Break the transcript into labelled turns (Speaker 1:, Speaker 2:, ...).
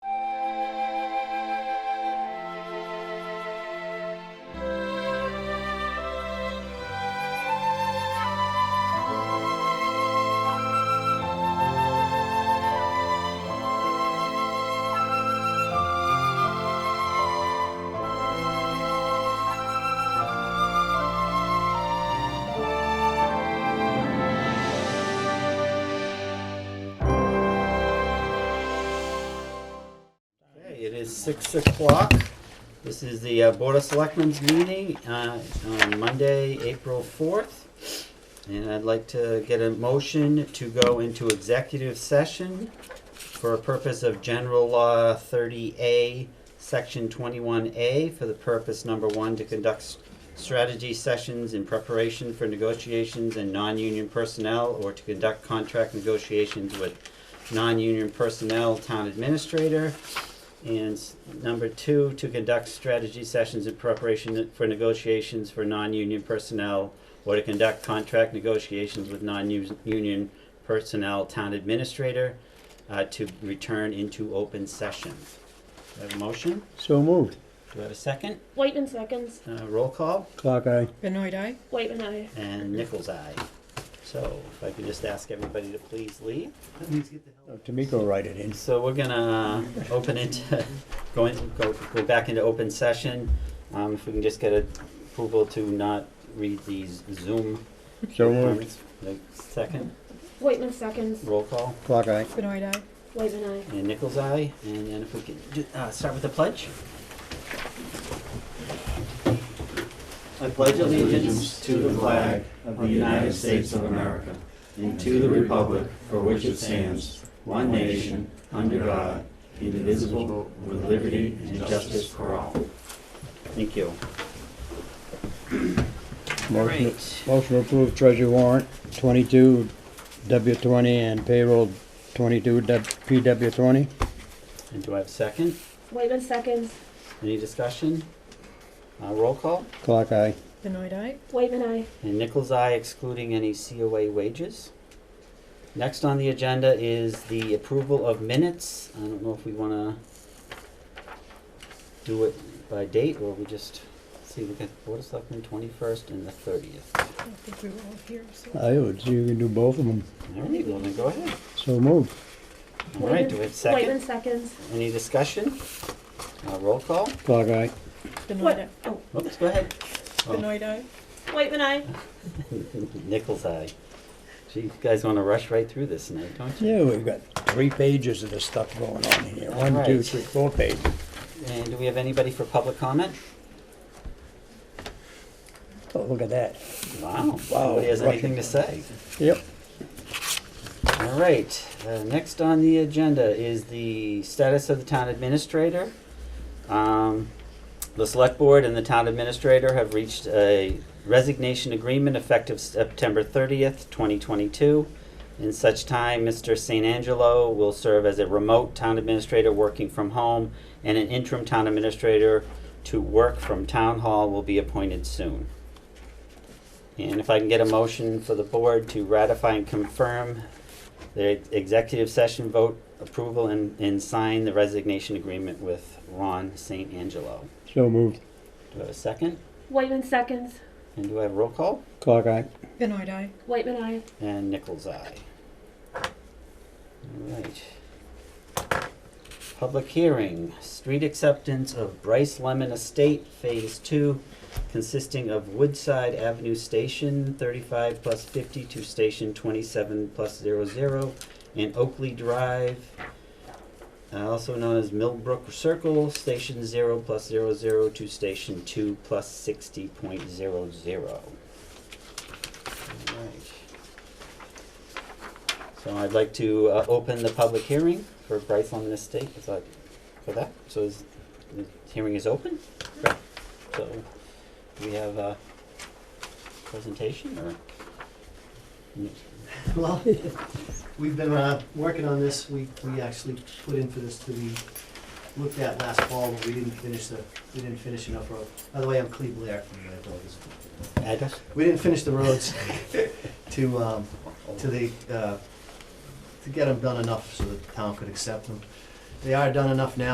Speaker 1: It is six o'clock. This is the uh, Board of Selectmen's meeting uh, on Monday, April fourth. And I'd like to get a motion to go into executive session for a purpose of General Law thirty A, Section twenty-one A, for the purpose number one, to conduct s- strategy sessions in preparation for negotiations and non-union personnel or to conduct contract negotiations with non-union personnel, town administrator. And s- number two, to conduct strategy sessions in preparation for negotiations for non-union personnel or to conduct contract negotiations with non-union personnel, town administrator, uh, to return into open session. Do I have a motion?
Speaker 2: So moved.
Speaker 1: Do I have a second?
Speaker 3: Whiteman seconds.
Speaker 1: Uh, roll call
Speaker 2: Clock eye.
Speaker 4: Benoit eye?
Speaker 3: Whiteman I.
Speaker 1: and Nichols' eye. So if I could just ask everybody to please leave.
Speaker 2: Oh, Tamiko write it in.
Speaker 1: So we're gonna open it, go in, go, go back into open session. Um, if we can just get approval to not read these Zoom
Speaker 2: So moved.
Speaker 1: comments. Second,
Speaker 3: Whiteman seconds.
Speaker 1: roll call,
Speaker 2: Clock eye.
Speaker 4: Benoit eye?
Speaker 3: Whiteman I.
Speaker 1: and Nichols' eye, and then if we can, do- uh, start with the pledge.
Speaker 5: I pledge allegiance to the flag of the United States of America and to the republic for which it stands, one nation, under God, indivisible, with liberty and justice for all.
Speaker 1: Thank you.
Speaker 2: Motion,
Speaker 1: Great.
Speaker 2: motion approved treasury warrant twenty-two W twenty and payroll twenty-two W- PW twenty.
Speaker 1: And do I have a second?
Speaker 3: Whiteman seconds.
Speaker 1: Any discussion? Uh, roll call,
Speaker 2: Clock eye.
Speaker 4: Benoit eye?
Speaker 3: Whiteman I.
Speaker 1: and Nichols' eye excluding any COA wages. Next on the agenda is the approval of minutes. I don't know if we wanna do it by date, or we just, see, we got Board of Selectmen twenty-first and the thirtieth.
Speaker 4: I don't think we were all here, so.
Speaker 2: I would see you can do both of them.
Speaker 1: All right, well then go ahead.
Speaker 2: So moved.
Speaker 1: All right, do
Speaker 3: Whitman-
Speaker 1: we have a
Speaker 3: Whiteman
Speaker 1: second?
Speaker 3: seconds.
Speaker 1: Any discussion? Uh, roll call?
Speaker 2: Clock eye.
Speaker 4: Benoit
Speaker 3: What?
Speaker 4: eye?
Speaker 3: Oh,
Speaker 1: Oops, go ahead. Oh.
Speaker 4: Benoit eye?
Speaker 3: Whiteman I.
Speaker 1: Nichols' eye. Gee, you guys wanna rush right through this tonight, don't you?
Speaker 2: Yeah, we've got three pages of this stuff going on in here. One, two,
Speaker 1: Alright.
Speaker 2: three, four pages.
Speaker 1: And do we have anybody for public comment?
Speaker 2: Oh, look at that.
Speaker 1: Wow,
Speaker 2: Wow,
Speaker 1: nobody has
Speaker 2: Russian.
Speaker 1: anything to say.
Speaker 2: Yep.
Speaker 1: All right, uh, next on the agenda is the status of the town administrator. Um, The select board and the town administrator have reached a resignation agreement effective September thirtieth, twenty twenty-two. In such time, Mr. St. Angelo will serve as a remote town administrator working from home, and an interim town administrator to work from town hall will be appointed soon. And if I can get a motion for the board to ratify and confirm the executive session vote approval and, and sign the resignation agreement with Ron St. Angelo.
Speaker 2: So moved.
Speaker 1: Do I have a second?
Speaker 3: Whiteman seconds.
Speaker 1: And do I have roll call?
Speaker 2: Clock eye.
Speaker 4: Benoit eye?
Speaker 3: Whiteman I.
Speaker 1: And Nichols' eye. All right. Public hearing, street acceptance of Bryce Lemon Estate Phase Two, consisting of Woodside Avenue Station thirty-five plus fifty to Station twenty-seven plus zero zero, and Oakley Drive, uh, also known as Millbrook Circle, Station zero plus zero zero to Station two plus sixty point zero zero. All right. So I'd like to uh, open the public hearing for Bryce Lemon Estate, if I, for that, so is, the hearing is open? Great. So, do we have a presentation or?
Speaker 6: Well, we've been uh, working on this, we, we actually put in for this to be looked at last fall, but we didn't finish the, we didn't finish enough road. By the way, I'm Cleve Blair from the Builders.
Speaker 1: Address?
Speaker 6: We didn't finish the roads to, um, to the, uh, to get them done enough so that the town could accept them. They are done enough now,